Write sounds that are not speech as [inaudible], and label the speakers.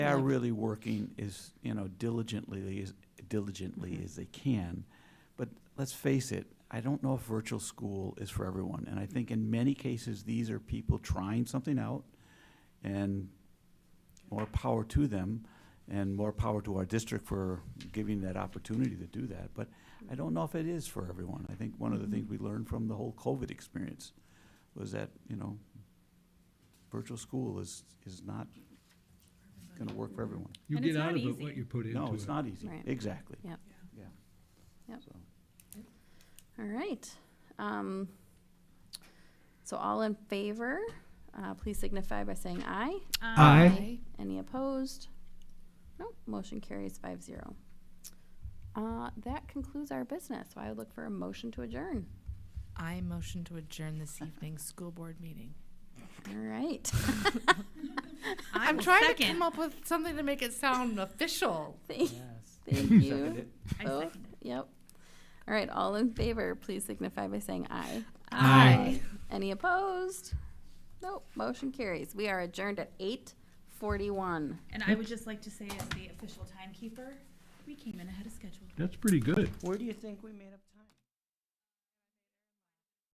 Speaker 1: They are
Speaker 2: Like-
Speaker 1: really working as, you know, diligently, as diligently as they can. But let's face it, I don't know if virtual school is for everyone. And I think in many cases, these are people trying something out and more power to them and more power to our district for giving that opportunity to do that. But I don't know if it is for everyone. I think one of the things we learned from the whole COVID experience was that, you know, virtual school is, is not gonna work for everyone.
Speaker 3: You
Speaker 2: And
Speaker 3: get
Speaker 2: it's
Speaker 3: out
Speaker 2: not
Speaker 3: of it
Speaker 2: easy.
Speaker 3: what you put into it.
Speaker 1: No, it's not easy.
Speaker 2: Right.
Speaker 1: Exactly.
Speaker 2: Yep.
Speaker 1: Yeah.
Speaker 2: Yep.
Speaker 1: So,
Speaker 2: All right. Um, So all in favor, uh, please signify by saying aye.
Speaker 3: Aye.
Speaker 2: Any opposed? Nope, motion carries five zero. Uh, That concludes our business, so I would look for a motion to adjourn.
Speaker 4: I motion to adjourn
Speaker 5: [laughs]
Speaker 4: this evening's school board meeting.
Speaker 2: All right, [laughs]
Speaker 4: I'm
Speaker 5: will
Speaker 4: trying to
Speaker 5: second.
Speaker 4: come up with something to make it sound official.
Speaker 2: [laughs] thank thank you.
Speaker 1: Seconded.
Speaker 5: I
Speaker 2: both.
Speaker 5: second
Speaker 2: Yep. All right, all in favor, please signify by saying aye.
Speaker 3: Aye.
Speaker 2: Any opposed? Nope, motion carries. We are adjourned at eight forty-one.
Speaker 5: And I would just like to say, as the official timekeeper, we came in ahead of schedule.
Speaker 3: That's pretty good.
Speaker 6: Where do you think we made up time?